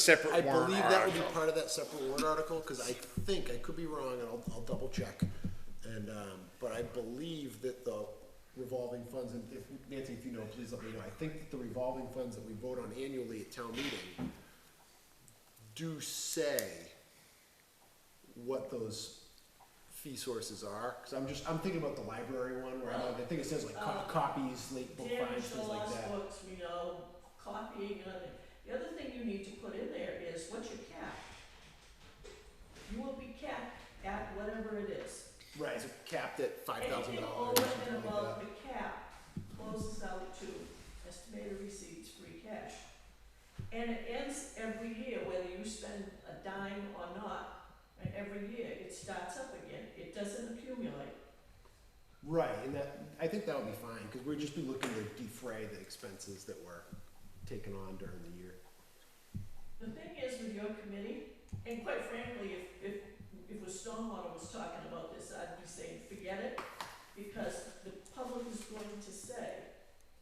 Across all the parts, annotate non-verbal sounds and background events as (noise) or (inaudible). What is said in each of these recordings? separate I warrant believe that would be article. part of that separate warrant article, because I think, I could be wrong, and I'll, I'll double check. And, um, but I believe that the revolving funds, and if, Nancy, if you know, please let me know, I think that the revolving funds that we vote on annually at town meeting do say what those fee sources are, because I'm just, I'm thinking about the library one, where I know, I think it says like co- copies, late book Damage fines, to things like lost that. books, you know, copying, and other- the other thing you need to put in there is what's your cap? You will be capped at whatever it is. Right, it's capped at five thousand Anything dollars. over and above the cap closes out to estimated receipts, free cash. And it ends every year, whether you spend a dime or not, and every year it starts up again, it doesn't accumulate. Right, and that, I think that would be fine, because we'd just be looking to defray the expenses that were taken on during the year. The thing is with your committee, and quite frankly, if, if, if a stormwater was talking about this, I'd be saying, forget it, because the public is going to say,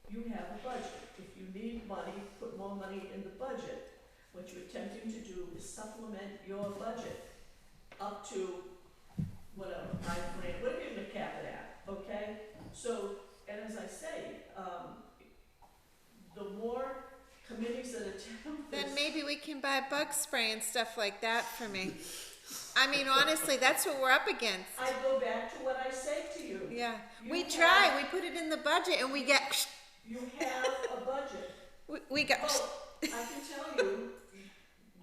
you have a budget, if you need money, put more money in the budget. What you're attempting to do is supplement your budget up to whatever, five grand, whatever you're gonna cap it at, okay? So, and as I say, um, the more committees that (laughs) attempt this. Then maybe we can buy bug spray and stuff like that for me. I mean, honestly, that's what we're up against. I go back to what I said to you. Yeah, we You try, have- we put it in the budget and we get, You have a budget. we- we got, Oh, I can tell you,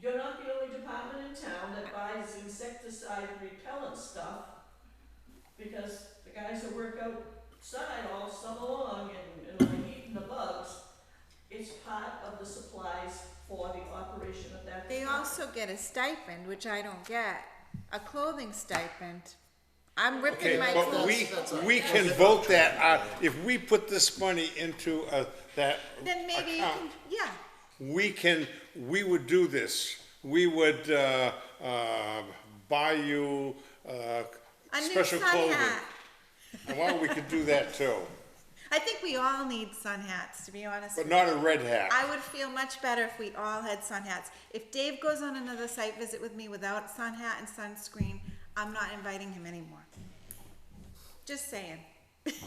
you're not the only department in town that buys insecticide repellent stuff. Because the guys that work outside all summer long and, and are eating the bugs, it's part of the supplies for the operation of that. they department. also get a stipend, which I don't get, a clothing stipend. I'm Okay, ripping my but clothes. we, we can vote that out, if we put this money into a, that Then maybe you can, account, yeah, we can, we would do this. We would, uh, uh, buy you, uh, a new special sun clothing. hat. And Well, we could do that too, I think we all need sun hats, to be honest. but with not you. a red hat. I would feel much better if we all had sun hats. If Dave goes on another site visit with me without sun hat and sunscreen, I'm not inviting him anymore. Just (laughs) saying. That's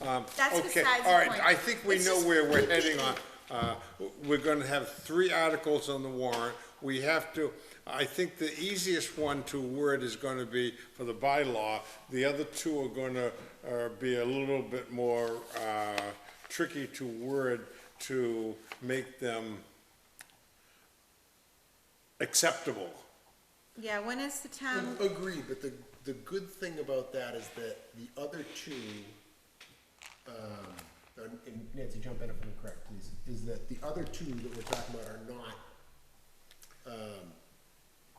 Um, Okay, besides all the right, point. I think we It's know just- where (laughs) we're heading on. Uh, We're gonna have three articles on the warrant. We have to, I think the easiest one to word is gonna be for the bylaw. The other two are gonna uh, be a little bit more uh, tricky to word to make them acceptable. Yeah, when is the town? Agree, but the, the good thing about that is that the other two, um, and- and Nancy, jump in if I'm correct, please, is that the other two that we're talking about are not, um,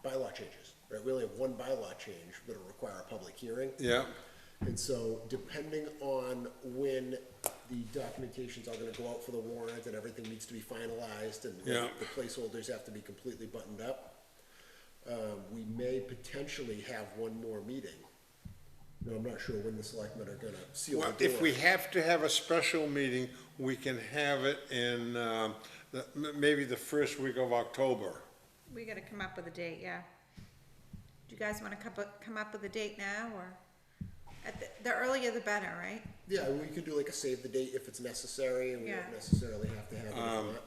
bylaw changes, right? We only have one bylaw change that'll require a public hearing. Yeah, And so depending on when the documentations are gonna go out for the warrant and everything needs to be finalized and Yeah. the placeholders have to be completely buttoned up, um, we may potentially have one more meeting. Now, I'm not sure when the selectmen are gonna seal the Well, door. if we have to have a special meeting, we can have it in, um, the- m- maybe the first week of October. We gotta come up with a date, yeah. Do you guys wanna come up, come up with a date now or? At the, the earlier the better, right? Yeah, we could do like a save the date if it's necessary and we Yeah. don't necessarily have to have it or Um,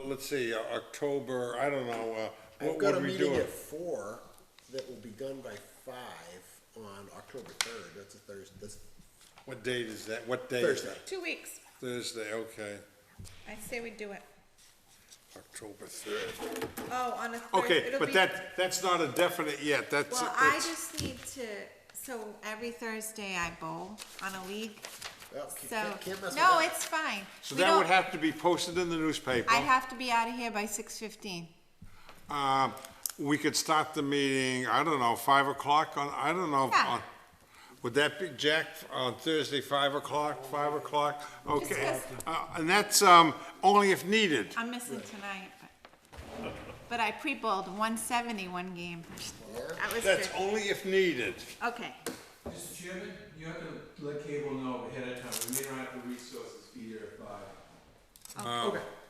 Uh, Let's see, uh, October, I don't know, uh, I've what got a would we meeting do? at four that will be done by five on October third, that's a Thursday, that's What date is that? What day is Thursday. that? Two weeks. Thursday, okay, I say we do it. October third. Oh, on a Thursday. Okay, It'll but be- that, that's not a definite yet, that's, Well, I that's, just need to, so every Thursday I bowl on a league. Oh, So, can't- can't mess with no, that. it's fine. so We that would don't- have to be posted in the newspaper. I'd have to be out of here by six fifteen. Uh, we could start the meeting, I don't know, five o'clock on, I don't know. Yeah. on- Would that be, Jack, on Thursday, five o'clock, five o'clock? Okay, Discuss. uh, and that's, um, only if needed. I'm missing tonight, but, but I pre-bowled 170 one game. That was good. That's only if needed. Okay, Mr. Chairman, you have to let cable know ahead of time, we may not have the resources be there by. Okay,